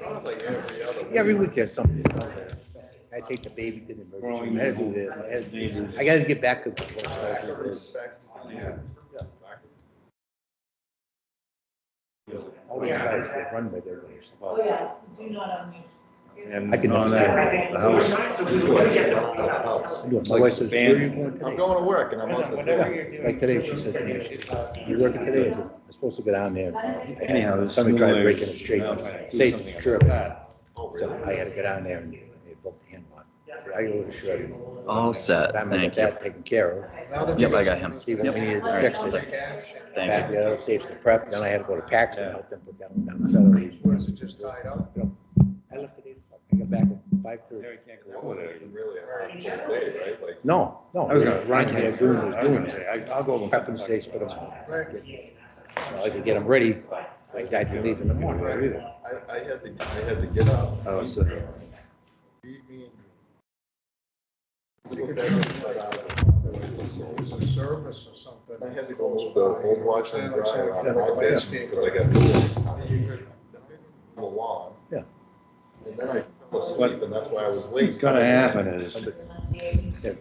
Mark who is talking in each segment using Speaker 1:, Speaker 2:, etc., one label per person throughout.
Speaker 1: Probably every other.
Speaker 2: Every week there's something. I take the baby to the emergency, I had to do this, I had to do this. I gotta get back to.
Speaker 1: Lack of respect.
Speaker 3: Yeah.
Speaker 2: All the guys that run by their lives.
Speaker 4: Oh, yeah, do not unmute.
Speaker 3: And
Speaker 2: I can
Speaker 3: on that,
Speaker 4: understand.
Speaker 3: the house,
Speaker 2: I do it. My wife says, where are you going
Speaker 1: I'm
Speaker 2: today?
Speaker 1: going to work and I'm on the.
Speaker 5: Whatever you're doing.
Speaker 2: Like today, she said to me, she You working today? I said, I'm supposed to go down there.
Speaker 3: Anyhow, this
Speaker 2: Somebody tried
Speaker 3: new
Speaker 2: breaking
Speaker 3: lawyer's
Speaker 2: it straight,
Speaker 3: announced that.
Speaker 2: say,
Speaker 3: Do something
Speaker 2: sure.
Speaker 1: Oh,
Speaker 2: So
Speaker 1: really?
Speaker 2: I had to go down there and they booked him on. So I go to Shirley.
Speaker 6: All set,
Speaker 2: But I'm gonna
Speaker 6: Uh, thank
Speaker 2: get
Speaker 6: you.
Speaker 2: that taken care
Speaker 1: Now that you
Speaker 6: Yep, I
Speaker 1: guys-
Speaker 6: got him.
Speaker 2: of. See, when we needed
Speaker 6: Yep,
Speaker 2: to
Speaker 6: all right,
Speaker 2: fix
Speaker 6: all
Speaker 2: it.
Speaker 6: set.
Speaker 2: Back
Speaker 6: Thank you.
Speaker 2: the other saves the prep, then I had to go to Paxton, help them put down, down celery.
Speaker 5: Was it just tied up?
Speaker 2: I left at eight o'clock. I got back at five thirty.
Speaker 1: That would have been really a hard day, right? Like,
Speaker 2: No, no.
Speaker 3: I was gonna-
Speaker 2: Ron had doing, was
Speaker 3: I was
Speaker 2: doing
Speaker 3: gonna say,
Speaker 2: that.
Speaker 3: I- I'll go over-
Speaker 2: Prepping steaks, put them on. So I could get them ready. I got to leave in the morning.
Speaker 1: I, I had to, I had to get up.
Speaker 3: I was,
Speaker 1: feed
Speaker 3: uh,
Speaker 1: Brian, feed me and- Go back and set out.
Speaker 5: It was a service or something.
Speaker 1: And I had to go to the old Washington Drive on my bed
Speaker 5: Landscape.
Speaker 1: because I got tools.
Speaker 5: You could-
Speaker 1: Along.
Speaker 2: Yeah.
Speaker 1: And then I fell asleep and that's why I was late.
Speaker 3: what's gonna happen is,
Speaker 2: Somebody- yeah,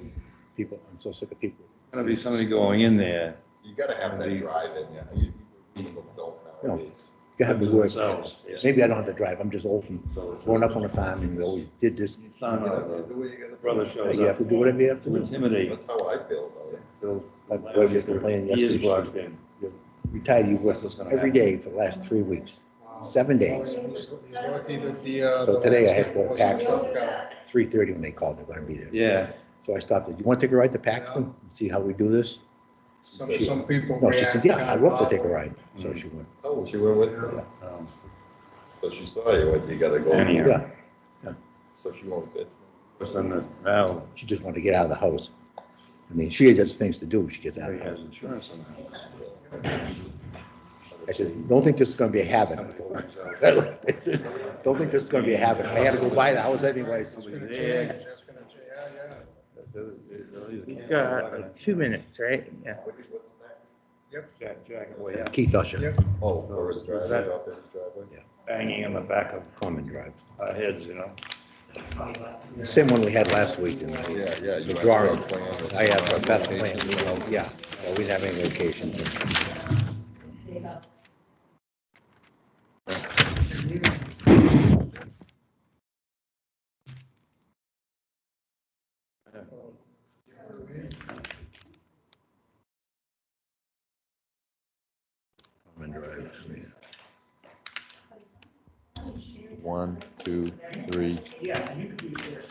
Speaker 2: People, I'm so sick of people.
Speaker 3: gonna be somebody going in there.
Speaker 1: You gotta have that drive in you. You- you. People don't nowadays.
Speaker 2: You gotta be worried.
Speaker 3: Themselves, yeah.
Speaker 2: Maybe I don't have to drive. I'm just old from growing up on a farm and we always did this.
Speaker 3: Son of
Speaker 1: You
Speaker 3: a
Speaker 1: do what you gotta do.
Speaker 3: brother shows
Speaker 2: You have
Speaker 3: up
Speaker 2: to do whatever you have to
Speaker 3: to
Speaker 2: do.
Speaker 3: intimidate.
Speaker 1: That's how I feel about it.
Speaker 3: They'll-
Speaker 2: My boy just complained
Speaker 3: He is
Speaker 2: yesterday.
Speaker 3: blocked in.
Speaker 2: Retired, you work every day for the last three weeks, seven days.
Speaker 5: He's he's lucky that the, uh.
Speaker 2: So
Speaker 5: the
Speaker 2: today I had to go
Speaker 5: landscape
Speaker 2: pack.
Speaker 5: wasn't tough guy.
Speaker 2: Three thirty when they called, they're gonna be there.
Speaker 3: Yeah,
Speaker 2: So I stopped. it. You want to take a ride to Paxton? See how we do this?
Speaker 5: Some, some people.
Speaker 2: No, she said,
Speaker 5: react
Speaker 2: yeah, I'd love to
Speaker 5: kinda
Speaker 2: take a ride. So she went,
Speaker 1: Oh, she went with you?
Speaker 3: um,
Speaker 1: So she saw you, like, you gotta go,
Speaker 3: Anyhow.
Speaker 2: yeah.
Speaker 1: so she won't fit.
Speaker 3: what's on the, now,
Speaker 2: She just wanted to get out of the house. I mean, she has things to do. She gets out
Speaker 3: he
Speaker 2: of the
Speaker 3: has
Speaker 2: house.
Speaker 3: insurance on the house.
Speaker 2: I said, don't think this is gonna be a habit. I said, Don't think this is gonna be a habit. I had to go buy the house anyways.
Speaker 5: It's gonna
Speaker 3: Yeah.
Speaker 5: change, it's gonna change, yeah, yeah.
Speaker 7: We've got two minutes, right? Yeah.
Speaker 1: What's next?
Speaker 3: Jack, Jack, way up,
Speaker 2: Keith Usher,
Speaker 5: Yep.
Speaker 1: Oh, or his driveway, up in his driveway.
Speaker 3: banging on the back of
Speaker 2: Common Drive.
Speaker 3: our heads, you know?
Speaker 2: Same one we had last week and I,
Speaker 1: Yeah, yeah.
Speaker 2: the
Speaker 1: you
Speaker 2: drawing.
Speaker 1: have to have a plan.
Speaker 2: I have a better plan. Yeah, no, we didn't have any locations. Common Drive, I mean,
Speaker 1: One, two, three,
Speaker 2: Well,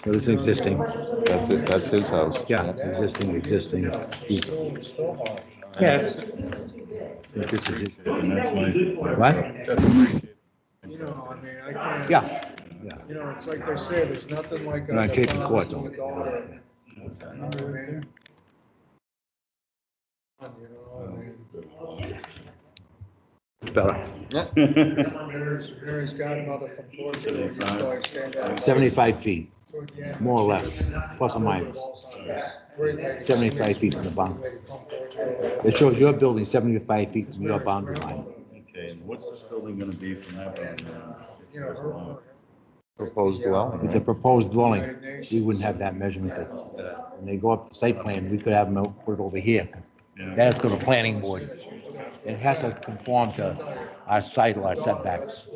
Speaker 2: this is existing.
Speaker 1: that's it, that's his house.
Speaker 2: Yeah, existing, existing.
Speaker 7: Yes.
Speaker 2: This is it.
Speaker 3: And that's why.
Speaker 2: What?
Speaker 5: You know, I mean, I can't.
Speaker 2: Yeah, yeah.
Speaker 5: You know, it's like they say, there's nothing like.
Speaker 2: And I
Speaker 5: a
Speaker 2: paid the
Speaker 5: father
Speaker 2: court
Speaker 5: and
Speaker 2: on
Speaker 5: a
Speaker 2: it.
Speaker 5: daughter. You know what I mean? You know, I mean,
Speaker 2: It's better.
Speaker 5: Mary's, Mary's godmother from Portugal, you know, I say that.
Speaker 2: Seventy-five feet,
Speaker 5: So, yeah,
Speaker 2: more or less,
Speaker 5: she's
Speaker 2: plus or minus.
Speaker 5: great lady.
Speaker 2: Seventy-five feet from the boundary.
Speaker 5: Lady from Portugal.
Speaker 2: It shows your building seventy-five feet from your boundary line.
Speaker 8: Okay, and what's this building gonna be from that
Speaker 5: And,
Speaker 8: one?
Speaker 5: uh, You know, her- her-
Speaker 1: Proposed dwelling.
Speaker 2: It's a proposed dwelling. We wouldn't have that measurement. When they go up the site plan, we could have them put it over here. That's go to planning board. It has to conform to our side lot setbacks.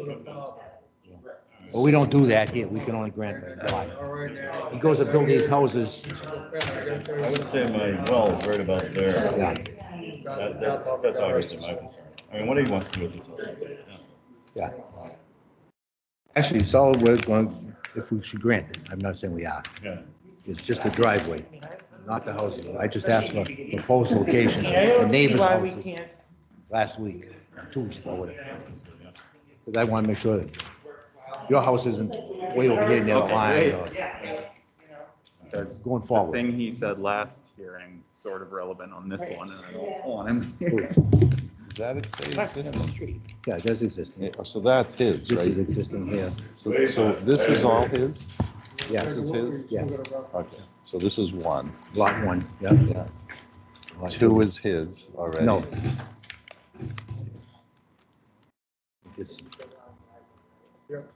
Speaker 2: But we don't do that here. We can only grant them a lot. He goes to build these houses,
Speaker 8: I would say my well is right about there.
Speaker 2: yeah,
Speaker 8: That, that's, that's obviously my concern. I mean, what do you want to do with this? house?
Speaker 2: yeah. Actually, solid waste going, if we should grant it, I'm not saying we are.
Speaker 8: Yeah.
Speaker 2: It's just the driveway, not the houses. I just asked for proposed location, the neighbor's houses
Speaker 7: can't.
Speaker 2: last week, two weeks ago, whatever. Because I want to make sure that your house isn't way over here near the line or
Speaker 9: Does
Speaker 2: going
Speaker 9: the
Speaker 2: forward.
Speaker 9: thing he said last hearing sort of relevant on this one, and I don't want him here.
Speaker 1: Is that it, say existing?
Speaker 2: Yeah, that's existing.
Speaker 1: Yeah, So that's his,
Speaker 2: This is
Speaker 1: right?
Speaker 2: existing here,
Speaker 1: So, so this is all his?
Speaker 2: yes,
Speaker 1: This is his?
Speaker 2: yes,
Speaker 1: Okay, so this is one.
Speaker 2: lot one, yeah. Lot
Speaker 1: Two is his already.
Speaker 2: No. It's-
Speaker 5: Yep.